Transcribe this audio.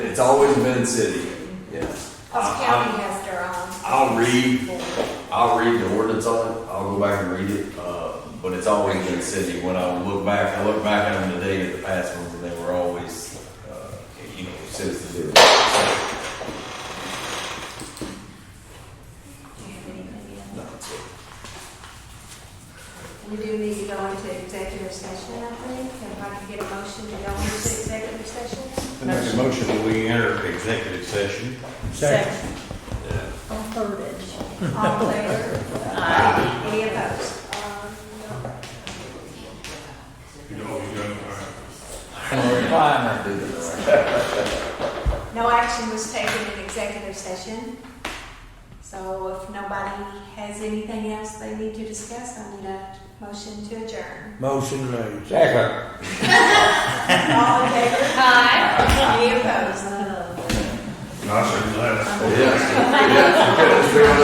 It's always been city, yeah. Plus I- I- county has their own. I'll read, I'll read the ordinance on it, I'll go back and read it, uh, but it's always been city. When I look back, I look back at them today at the past ones, and they were always, uh, you know, citizens. Do you have any idea? We do need to go into executive session, I think, and if I can get a motion to go into executive session. I Make a motion that we enter executive session. Second. All voted. All in favor? Any opposed? Um, no. No action was taken in executive session. So if nobody has anything else they need to discuss, I need a motion to adjourn. Motion made. Second. All in favor? Aye. Any opposed? Yes, yes, okay, let's figure it out.